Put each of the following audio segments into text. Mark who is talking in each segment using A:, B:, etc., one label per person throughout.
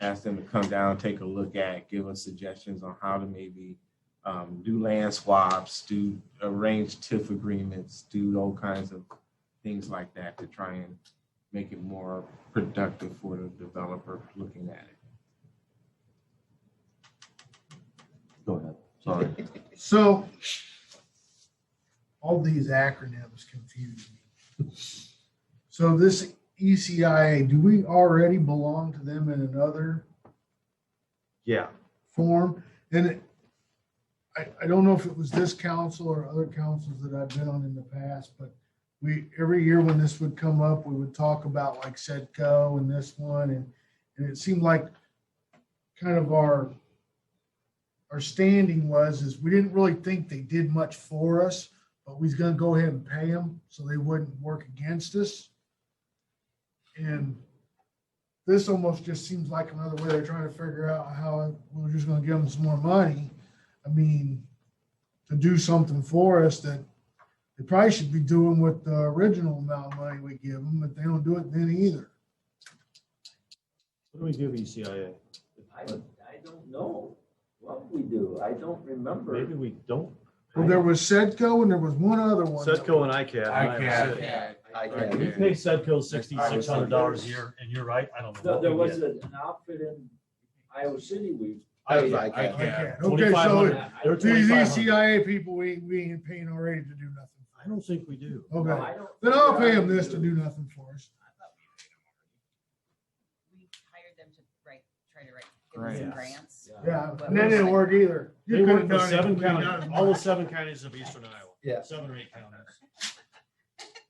A: ask them to come down, take a look at, give us suggestions on how to maybe um, do land swaps, do arrange TIF agreements, do all kinds of things like that to try and make it more productive for the developer looking at it.
B: Go ahead, sorry.
C: So all these acronyms confuse me. So this E ECIA, do we already belong to them in another
D: Yeah,
C: form? And it, I, I don't know if it was this council or other councils that I've been on in the past, but we, every year when this would come up, we would talk about like SEDCO and this one and, and it seemed like kind of our our standing was is we didn't really think they did much for us, but we was gonna go ahead and pay them so they wouldn't work against us. And this almost just seems like another way they're trying to figure out how we're just gonna give them some more money. I mean, to do something for us that they probably should be doing with the original amount of money we give them, but they don't do it then either.
B: What do E we give ECIA?
E: I, I don't know what we do. I don't remember.
B: Maybe we don't.
C: Well, there was Sedco and there was one other one.
D: Setco and ICAD.
E: ICAD.
D: That's it.
E: I
B: We
E: can't.
B: pay Sedco sixty-six hundred dollars a year, and you're right, I don't know
E: No,
B: what
E: there
B: we
E: was
B: get.
E: an outfit in Iowa City we.
B: I-
E: paid.
B: I-
E: I-
C: Okay, Okay, so
B: 2,500. They were
C: These E
B: 2,500.
C: ECIA people, we, we ain't paying already to do nothing.
B: I don't think we do.
E: No,
C: Okay,
E: I don't
C: then I'll pay
E: think I
C: them this to do nothing for us.
F: we hired them to write, try to write, give them some grants.
E: Yeah.
C: Yeah, and that didn't work either.
B: They
C: You
B: work
C: couldn't
B: for
C: done it.
B: seven
C: We done it.
B: counties, all the seven counties of eastern Iowa.
D: Yeah.
B: Seven or eight counties.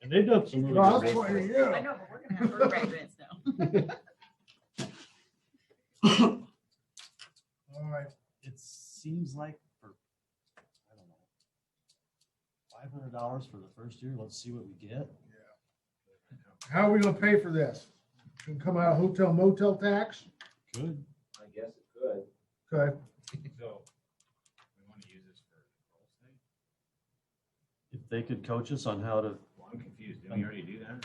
B: And they've done some really
C: Well,
B: good
C: that's
B: work.
C: why,
B: for us.
F: I
C: yeah.
F: know, but we're gonna have her write grants now.
C: All right,
B: It seems like for, I don't know, five hundred dollars for the first year, let's see what we get.
C: how are we gonna pay for this? Can come out of hotel motel tax?
B: Good.
E: I guess it could.
C: Okay,
B: If they could coach us on how to,
G: Well, I'm confused. Didn't we already do that?
B: Um,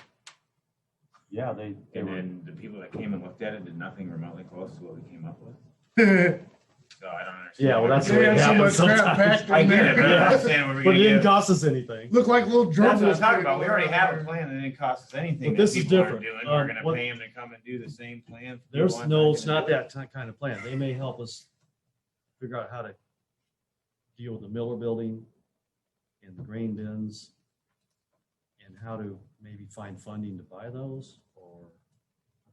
B: yeah, they, they
G: And
B: were,
G: then the people that came and looked at it did nothing remotely close to what we came up with. So I don't understand.
B: Yeah, well, that's the
C: They
B: way
C: had
B: it
C: so much
B: happens
C: crap
B: sometimes.
C: packed
G: I
C: in
G: get it, but I don't
C: there.
G: understand what we're
B: but
G: gonna
B: it didn't
G: get.
B: cost us anything.
C: Look like little drums.
G: That's what I'm talking about. We already have a plan that didn't cost us anything.
B: But
G: that
B: this is
G: people aren't
B: different.
G: doing.
B: Um,
G: We're
B: what-
G: gonna pay them to come and do the same plan.
B: There's
G: People aren't
B: no,
G: gonna
B: it's not
G: do it.
B: that ti- kind of plan. They may help us figure out how to deal with the Miller Building and the grain bins and how to maybe find funding to buy those or.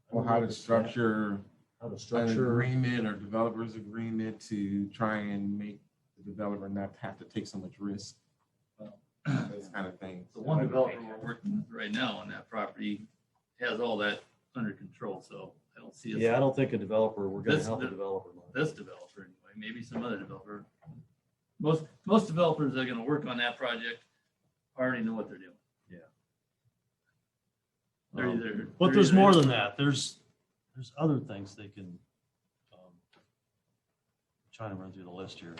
A: Or how to structure
B: How to
A: an
B: structure.
A: agreement or developer's agreement to try and make the developer not have to take so much risk. uh, Those kind of things.
H: The one developer we're working with right now on that property has all that under control, so I don't see. us-
B: Yeah, I don't think a developer, we're gonna
H: This-
B: help a developer. much.
H: This developer anyway, maybe some other developer. Most, most developers that are gonna work on that project already know what they're doing.
B: Yeah.
H: They're
B: Um,
H: either.
B: But
H: they're
B: there's
H: either-
B: more than that. There's, there's other things they can, um, trying to run through the list here.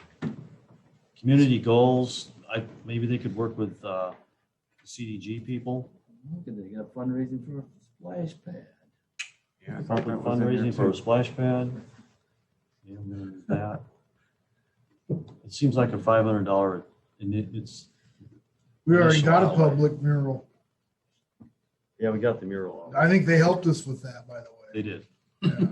B: Community goals, I, maybe they could work with, uh, CDG people,
H: Look at, they got fundraising for a splash pad.
A: Yeah, I thought
B: help with
A: that was in there
B: fundraising for
A: too.
B: a splash pad. Yeah, I'm gonna do that. It seems like a five hundred dollar, and it, it's,
C: We already got a
B: Initial.
C: public mural.
B: yeah, we got the mural. on.
C: I think they helped us with that, by the way.
B: They did. They
C: Yeah.
B: did.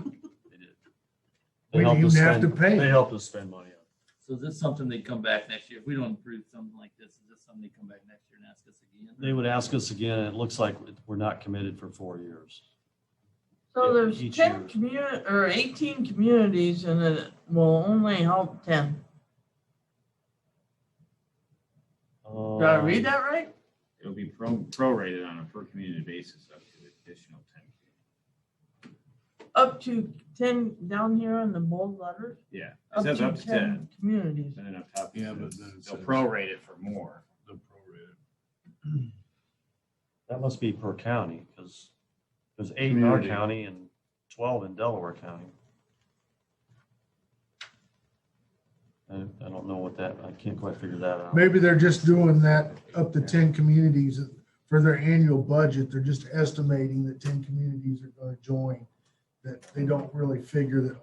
B: They
C: We
B: helped
C: didn't
B: us
C: even have to
B: spend- They
C: pay.
B: helped us spend money on it.
H: So is this something they come back next year? If we don't approve something like this, is this something they come back next year and ask us again?
B: They would ask us again, and it looks like we're not committed for four years.
I: So there's
B: Each year.
I: ten community, or eighteen communities and it will only help ten. Did I read
B: Uh,
I: that right?
G: It'll be pro- prorated on a per community basis up to the additional ten.
I: Up to ten down here in the bold letters?
G: Yeah, it says up to ten,
I: Communities.
G: and then up top. it
B: Yeah, but
G: says
B: then it
G: They'll
B: says-
G: prorate it for more.
B: That must be per county, because there's eight in our county and twelve in Delaware County. I, I don't know what that, I can't quite figure that out.
C: Maybe they're just doing that up to ten communities for their annual budget. They're just estimating that ten communities are gonna join. that they don't really figure that